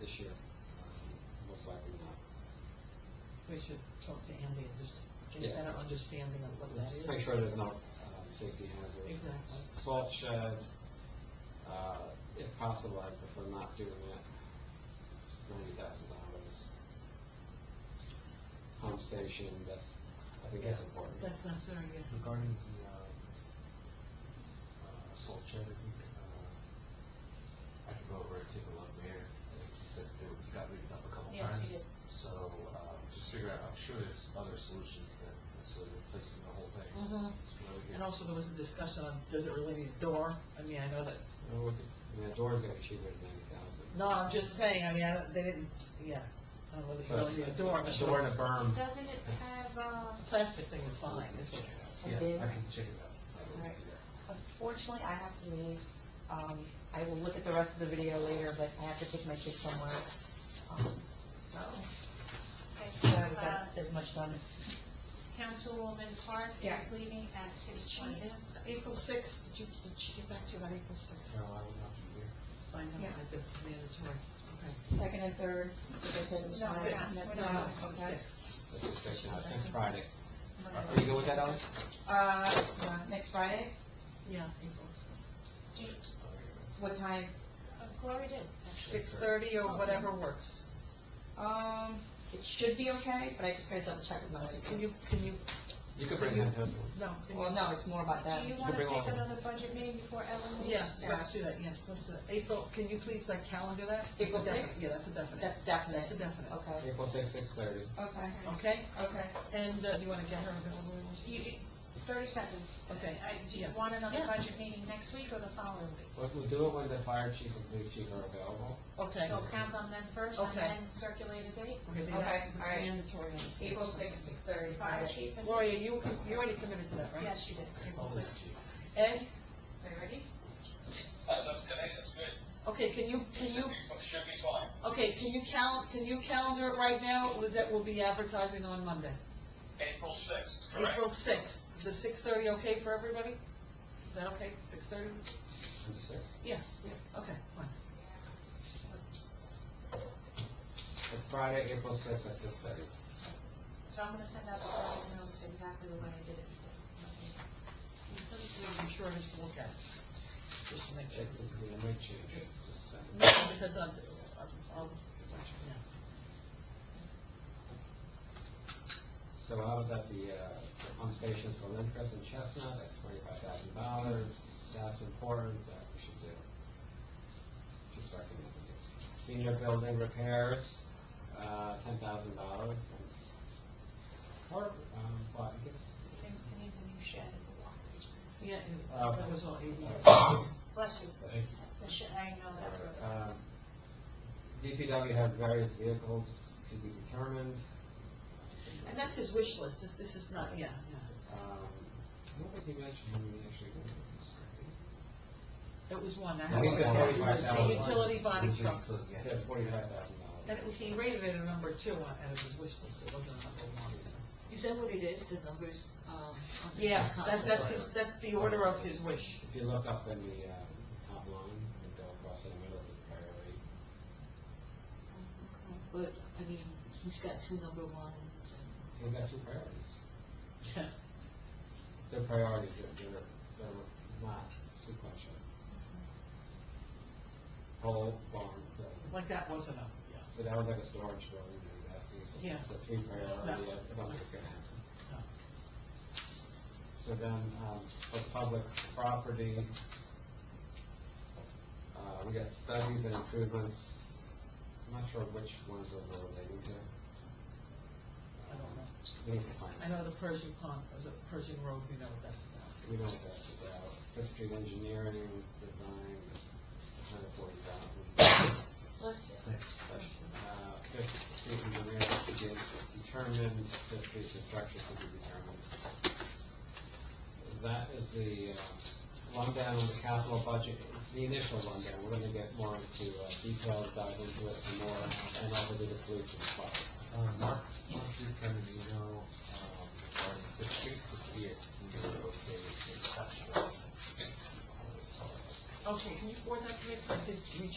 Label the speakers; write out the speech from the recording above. Speaker 1: this year, um, most likely not.
Speaker 2: We should talk to Andy and just get a
Speaker 1: Yeah.
Speaker 2: better understanding of what that is.
Speaker 1: Let's make sure there's no um, safety hazard.
Speaker 2: Exactly.
Speaker 1: Salt shed, uh, if possible, I prefer not doing that. Ninety thousand dollars. Pump station, that's, I think that's
Speaker 3: Yeah.
Speaker 1: important.
Speaker 2: That's necessary, yeah.
Speaker 3: Regarding the, uh, uh, salt shed, I think, uh, I could go over and take a look there. I think he said that he got written up a couple
Speaker 4: Yes,
Speaker 3: times.
Speaker 4: he did.
Speaker 3: So, um, just figure out, I'm sure there's other solutions than necessarily replacing the whole thing.
Speaker 2: Mhm.
Speaker 3: It's really good.
Speaker 2: And also, there was a discussion on, does it really need a door? I mean, I know that,
Speaker 1: You know, we could- I mean, the door's gonna be cheaper than ninety thousand.
Speaker 2: no, I'm just saying, I mean, I don't- they didn't, yeah, I don't know if you really need a door. but-
Speaker 3: Door and a
Speaker 1: Um,
Speaker 3: berm.
Speaker 4: Doesn't it have,
Speaker 2: A
Speaker 5: uh,
Speaker 4: um,
Speaker 2: plastic thing is fine, is what.
Speaker 3: Yeah,
Speaker 4: bid?
Speaker 3: I can check it out. I will do
Speaker 4: Right.
Speaker 3: that.
Speaker 4: unfortunately, I have to leave. Um, I will look at the rest of the video later, but I have to take my kids somewhere. Um, So,
Speaker 5: Okay.
Speaker 4: so I've
Speaker 5: Uh,
Speaker 4: got as much done.
Speaker 5: Councilwoman Park
Speaker 4: Yeah.
Speaker 5: is leaving at six twenty.
Speaker 2: April sixth, did you, did she get back to you about April sixth?
Speaker 3: No, I will not be here.
Speaker 2: Find out
Speaker 4: Yeah.
Speaker 2: if it's mandatory, okay.
Speaker 4: Second and third, like I said, it was
Speaker 5: No,
Speaker 4: fine.
Speaker 5: we're not-
Speaker 4: No,
Speaker 5: we're not.
Speaker 4: no,
Speaker 2: April
Speaker 4: Oh, okay.
Speaker 2: 6th.
Speaker 1: That's the fix now, since Friday. Are you
Speaker 4: Whatever.
Speaker 1: good with that, Ellen?
Speaker 4: Uh, yeah, next Friday,
Speaker 2: Yeah, April sixth.
Speaker 4: what time?
Speaker 5: Uh, Gloria did. actually.
Speaker 2: Six thirty or whatever works.
Speaker 4: Um, it should be okay, but I just gotta double check with my
Speaker 2: Can
Speaker 4: husband.
Speaker 2: you, can you,
Speaker 1: You could bring that up.
Speaker 2: no, can you?
Speaker 4: Well, no, it's more about that.
Speaker 5: Do
Speaker 1: You
Speaker 5: you
Speaker 1: can
Speaker 5: want to
Speaker 1: bring all
Speaker 5: pick
Speaker 1: of them.
Speaker 5: another budget meeting before Ellen leaves?
Speaker 2: Yes, let's do that, yes, let's do that. April, can you please, like, calendar that?
Speaker 4: April
Speaker 2: That's a definite-
Speaker 4: sixth?
Speaker 2: Yeah, that's a definite.
Speaker 4: That's definite.
Speaker 2: That's a definite.
Speaker 4: Okay,
Speaker 1: April sixth, six thirty.
Speaker 4: okay,
Speaker 2: Okay,
Speaker 4: okay.
Speaker 2: and uh, you want to get her available?
Speaker 5: You, you- thirty seconds.
Speaker 2: Okay.
Speaker 5: I- Do you
Speaker 2: Yeah.
Speaker 5: want another
Speaker 2: Yeah.
Speaker 5: budget meeting next week or the following week?
Speaker 1: We'll we'll do it when the fire chief and police chief are available.
Speaker 2: Okay.
Speaker 5: So count on them first and
Speaker 2: Okay.
Speaker 5: then circulate a date.
Speaker 2: Okay, then
Speaker 4: Okay,
Speaker 2: that's
Speaker 4: all right.
Speaker 2: mandatory on the
Speaker 4: April sixth, six thirty,
Speaker 5: Fire
Speaker 4: Friday.
Speaker 5: chief and.
Speaker 2: Gloria, you, you already committed to that, right?
Speaker 5: Yes, she did.
Speaker 2: April
Speaker 3: I'll leave
Speaker 2: sixth.
Speaker 3: it to you.
Speaker 2: Ed,
Speaker 4: Are you ready?
Speaker 6: As of today, that's good.
Speaker 2: okay, can you, can you,
Speaker 6: Should be- Should be fine.
Speaker 2: okay, can you cal, can you calendar it right now? It Was that, we'll be advertising on Monday?
Speaker 6: April sixth, correct?
Speaker 2: April sixth, the six thirty okay for everybody? Is that okay, six thirty?
Speaker 1: April sixth.
Speaker 2: Yeah, yeah, okay, fine.
Speaker 1: It's Friday, April sixth, at six thirty.
Speaker 5: So I'm gonna send out the budget notes exactly the way I did it.
Speaker 2: I'm sure I just look at it, just to make sure.
Speaker 1: It it might change it, just send it.
Speaker 2: No, because I'm, I'm, I'm- yeah.
Speaker 1: So I was at the, uh, the pump stations for Lindcrest and Chestnut, that's twenty-five thousand dollars, that's important, that we should do. Just recommending it. Senior building repairs, uh, ten thousand dollars, and, or, um, well, I guess,
Speaker 5: It it needs a new shed in the walk.
Speaker 2: Yeah,
Speaker 1: Okay.
Speaker 2: that was all eight
Speaker 5: Bless you.
Speaker 1: I think
Speaker 5: The shed, I know that. road.
Speaker 1: Um, DPW has various vehicles to be determined.
Speaker 2: And that's his wish list, this, this is not, yeah,
Speaker 1: Um, I don't think you mentioned how many actually go to this.
Speaker 2: yeah. It was one, I
Speaker 1: He's
Speaker 2: have it,
Speaker 1: got
Speaker 2: yeah,
Speaker 1: $45,000.
Speaker 2: it was a utility body
Speaker 3: Utility
Speaker 2: truck.
Speaker 3: truck, yeah.
Speaker 1: Yeah, forty-five thousand dollars.
Speaker 2: And it- he rated it a number two on, out of his wish list, it wasn't a number one. so.
Speaker 4: Is that what it is, the numbers, um?
Speaker 2: Yeah, that's, that's, his- that's the order of his wish.
Speaker 1: If you look up in the, uh, top line, and go across in the middle of the priority,
Speaker 4: But, I mean, he's got two number one.
Speaker 1: you've got two priorities. They're priorities, they're, they're, they're not sequential. Whole barn, building.
Speaker 2: Like that wasn't a, yeah,
Speaker 1: so that was like a storage building, he was asking, so
Speaker 2: Yeah.
Speaker 1: it's a three priority,
Speaker 2: No.
Speaker 1: I don't think it's gonna happen.
Speaker 2: no.
Speaker 1: So then, um, for public property, uh, we got studies and improvements, I'm not sure which ones are related to.
Speaker 2: I don't know.
Speaker 1: We need to find,
Speaker 2: I know the Pershing Pond, or the Pershing Road, we know what that's about.
Speaker 1: we know what that's about, Fifth Street Engineering, Design, hundred forty thousand.
Speaker 5: Bless you.
Speaker 1: Uh, Fifth Street Engineering to be determined, Fifth Street Construction to be determined. That is the uh, rundown of the capital budget, the initial rundown. We're gonna get more into uh, details, dive into it some more, and also do the police and fire.
Speaker 3: Uh, Mark, Mark did send an email, um, regarding the street, to see if we were okay with the exception.
Speaker 2: Okay, can you forward that to me, 'Cause I did reach